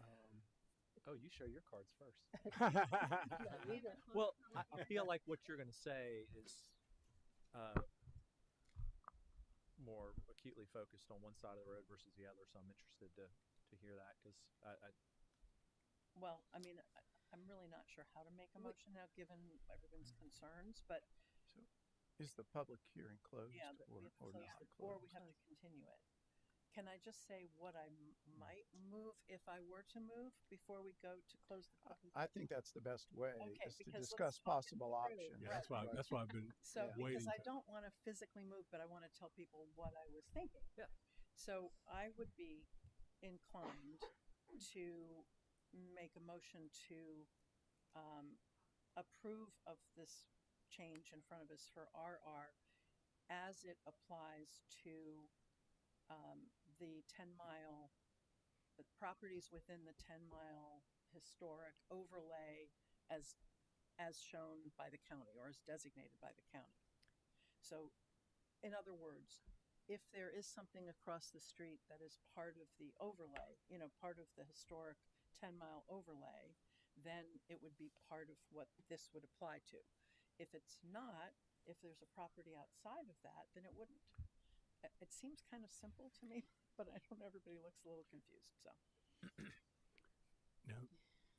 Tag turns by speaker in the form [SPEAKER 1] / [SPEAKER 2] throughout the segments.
[SPEAKER 1] Um,
[SPEAKER 2] oh, you show your cards first.
[SPEAKER 3] Yeah, we don't-
[SPEAKER 1] Well, I, I feel like what you're going to say is uh, more acutely focused on one side of the road versus the other. So I'm interested to, to hear that because I, I,
[SPEAKER 3] Well, I mean, I- I'm really not sure how to make a
[SPEAKER 4] We-
[SPEAKER 3] motion now, given everyone's concerns, but
[SPEAKER 4] So, is the public hearing closed
[SPEAKER 3] yeah, that we
[SPEAKER 4] or,
[SPEAKER 3] have to
[SPEAKER 4] or
[SPEAKER 3] close
[SPEAKER 4] not
[SPEAKER 3] it,
[SPEAKER 4] closed?
[SPEAKER 3] or we have to continue it. Can I just say what I m-
[SPEAKER 4] Mm-hmm.
[SPEAKER 3] might move if I were to move before we go to close the
[SPEAKER 4] I-
[SPEAKER 3] public?
[SPEAKER 4] I think that's the best way
[SPEAKER 3] Okay,
[SPEAKER 4] is to
[SPEAKER 3] because let's
[SPEAKER 4] discuss
[SPEAKER 3] talk it
[SPEAKER 4] possible
[SPEAKER 3] through.
[SPEAKER 4] options.
[SPEAKER 5] Yeah, that's why. That's why I've been.
[SPEAKER 3] So,
[SPEAKER 4] Yeah.
[SPEAKER 3] because
[SPEAKER 5] Waiting
[SPEAKER 3] I
[SPEAKER 5] to-
[SPEAKER 3] don't want to physically move, but I want to tell people what I was thinking.
[SPEAKER 1] Yeah.
[SPEAKER 3] So I would be inclined to make a motion to um, approve of this change in front of us for RR as it applies to um, the 10 mile, the properties within the 10 mile historic overlay as as shown by the county or as designated by the county. So, in other words, if there is something across the street that is part of the overlay, you know, part of the historic 10 mile overlay, then it would be part of what this would apply to. If it's not, if there's a property outside of that, then it wouldn't. It- It seems kind of simple to me, but I don't, everybody looks a little confused, so.
[SPEAKER 5] No,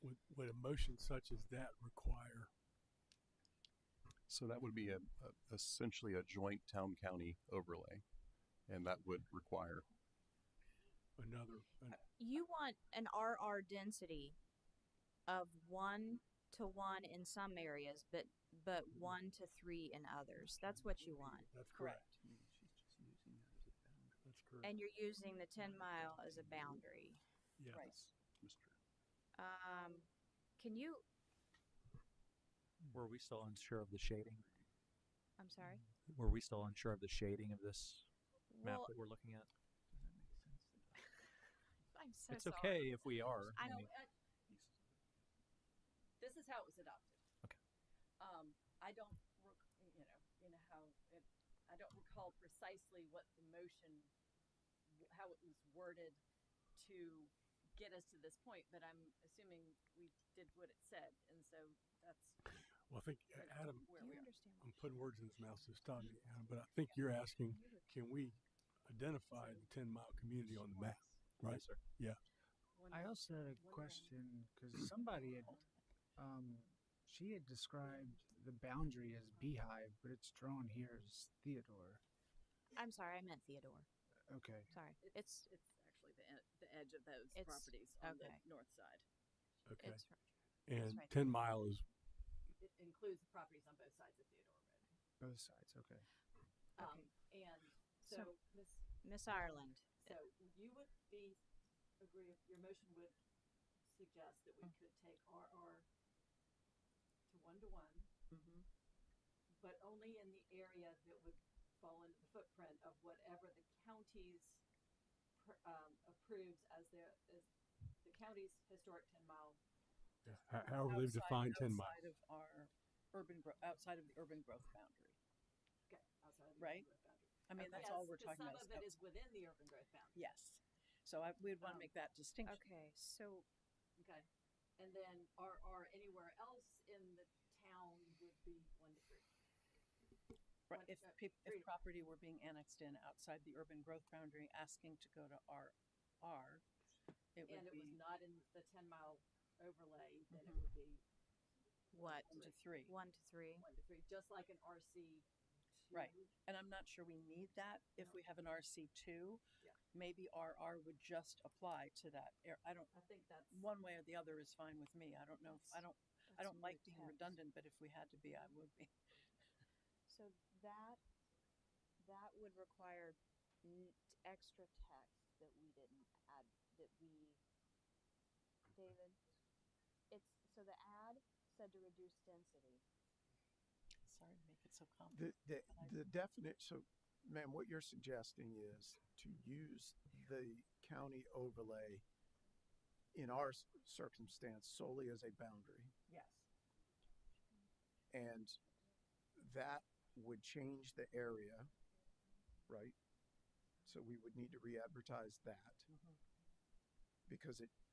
[SPEAKER 5] would, would a motion such as that require?
[SPEAKER 6] So that would be a, a essentially a joint town county overlay, and that would require
[SPEAKER 5] Another, an-
[SPEAKER 7] You want an RR density of one to one in some areas, but but one to three in others. That's what you want.
[SPEAKER 5] that's correct.
[SPEAKER 4] She's just using that as a boundary.
[SPEAKER 5] That's correct.
[SPEAKER 7] And you're using the ten mile as a boundary.
[SPEAKER 5] Yeah.
[SPEAKER 3] Right.
[SPEAKER 6] Mr.
[SPEAKER 7] Um, can you?
[SPEAKER 1] were we still unsure of the shading?
[SPEAKER 7] I'm sorry.
[SPEAKER 1] Were we still unsure of the shading of this map
[SPEAKER 7] Well,
[SPEAKER 1] that we're looking at?
[SPEAKER 4] Does that make sense?
[SPEAKER 8] I'm so
[SPEAKER 1] it's
[SPEAKER 8] sorry.
[SPEAKER 1] okay if we are.
[SPEAKER 7] I don't.
[SPEAKER 1] mean,
[SPEAKER 7] Uh,
[SPEAKER 6] Pieces of it.
[SPEAKER 8] This is how it was adopted.
[SPEAKER 1] Okay.
[SPEAKER 8] Um, I don't, rec- you know, you know how it, I don't recall precisely what the motion, how it was worded to get us to this point, but I'm assuming we did what it said, and so that's
[SPEAKER 5] Well, I think uh, Adam,
[SPEAKER 8] where
[SPEAKER 7] do
[SPEAKER 8] we
[SPEAKER 7] you
[SPEAKER 8] are.
[SPEAKER 7] understand?
[SPEAKER 5] I'm putting words in his mouth, so stop me, Adam. But I think you're asking, can we identify the 10 mile community on the map? Right.
[SPEAKER 1] Yes, sir.
[SPEAKER 9] I also had a
[SPEAKER 8] Wondering.
[SPEAKER 9] question because somebody had, um, she had described the boundary as beehive, but it's drawn here as Theodore.
[SPEAKER 7] I'm sorry. I meant Theodore.
[SPEAKER 9] Okay.
[SPEAKER 7] Sorry. It's
[SPEAKER 8] It's actually the,
[SPEAKER 3] e,
[SPEAKER 8] ed- the edge of those
[SPEAKER 7] It's-
[SPEAKER 8] properties on
[SPEAKER 7] okay.
[SPEAKER 8] the north side.
[SPEAKER 5] Okay.
[SPEAKER 7] it's
[SPEAKER 5] and
[SPEAKER 7] right.
[SPEAKER 5] 10 mile is
[SPEAKER 8] It includes the properties on both sides of Theodore Road.
[SPEAKER 9] Both sides. Okay.
[SPEAKER 8] Um, and so
[SPEAKER 7] So-
[SPEAKER 8] Miss
[SPEAKER 7] Miss Ireland.
[SPEAKER 8] So you would be, agree, your motion would suggest that we
[SPEAKER 9] Mm.
[SPEAKER 8] could take RR to one to one,
[SPEAKER 3] Mm-hmm.
[SPEAKER 8] but only in the area that would fall into the footprint of whatever the county's pr- um, approves as their, as the county's historic ten mile.
[SPEAKER 5] ho- however they've
[SPEAKER 3] outside-
[SPEAKER 5] defined 10 mile.
[SPEAKER 3] Outside of our urban, gro- outside of the urban growth boundary.
[SPEAKER 8] Okay, outside of the urban
[SPEAKER 3] Right.
[SPEAKER 8] growth boundary.
[SPEAKER 3] I mean, that's
[SPEAKER 8] Yes,
[SPEAKER 3] all we're
[SPEAKER 8] 'cause
[SPEAKER 3] talking about.
[SPEAKER 8] Some of it is within the urban growth boundary.
[SPEAKER 3] Yes. So I, we'd want to
[SPEAKER 8] Um,
[SPEAKER 3] make that distinction.
[SPEAKER 7] Okay. So
[SPEAKER 8] Okay, and then RR anywhere else in the town would be one to three.
[SPEAKER 3] Right,
[SPEAKER 8] One-
[SPEAKER 3] If,
[SPEAKER 8] uh,
[SPEAKER 3] peop
[SPEAKER 8] three
[SPEAKER 3] if
[SPEAKER 8] to-
[SPEAKER 3] property were being annexed in outside the urban growth boundary, asking to go to RR,
[SPEAKER 8] and
[SPEAKER 3] it would
[SPEAKER 8] it was
[SPEAKER 3] be
[SPEAKER 8] not in the ten mile overlay, then it
[SPEAKER 3] Mhm.
[SPEAKER 8] would be
[SPEAKER 7] what?
[SPEAKER 3] one to three.
[SPEAKER 7] One to three.
[SPEAKER 8] one to three, just like an RC.
[SPEAKER 3] Right.
[SPEAKER 8] two.
[SPEAKER 3] And I'm not sure we need that if
[SPEAKER 8] No.
[SPEAKER 3] we have an RC two.
[SPEAKER 8] Yeah.
[SPEAKER 3] Maybe RR would just apply to that. ar- I don't,
[SPEAKER 8] I think that's.
[SPEAKER 3] one way or the other is fine with me. I don't know, if- I don't, I
[SPEAKER 7] That's
[SPEAKER 3] don't
[SPEAKER 7] in
[SPEAKER 3] like
[SPEAKER 7] the
[SPEAKER 3] being
[SPEAKER 7] text.
[SPEAKER 3] redundant, but if we had to be, I would be.
[SPEAKER 7] So that that would require n- extra text that we didn't add. That we, David, it's so the ad said to reduce density.
[SPEAKER 3] Sorry to make it so complicated.
[SPEAKER 4] The, the, the definite, so ma'am, what you're suggesting is to use the county overlay in our s- circumstance solely as a boundary.
[SPEAKER 3] Yes.
[SPEAKER 4] And that would change the area,
[SPEAKER 8] Mm-hmm.
[SPEAKER 4] right? So we would need to re-advertise that
[SPEAKER 3] Mhm.
[SPEAKER 4] because it